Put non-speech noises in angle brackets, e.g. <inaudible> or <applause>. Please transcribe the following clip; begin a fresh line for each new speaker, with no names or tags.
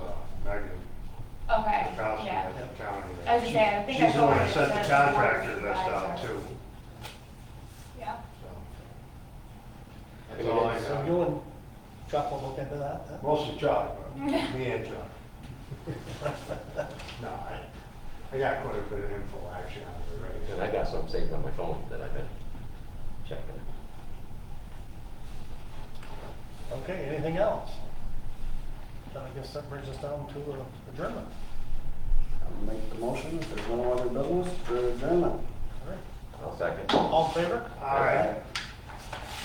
was
She-
there, I think I
She's the one
forwarded
that
it
sent the
to her.
contractor list out too,
Yeah,
so.
That's
That's all I
So you
got.
and Chuck will look into that, then?
Mostly
<laughs>
Chuck, but me and Chuck. <laughs> No, I, I got quite a bit of info actually on it
And
already.
I got some saved on my phone that I've been checking.
Okay, anything else? Then I guess that brings us down to uh, adjournment.
I'll make the motion, if there's no other business, for adjournment.
All right.
I'll second.
All in favor?
All right.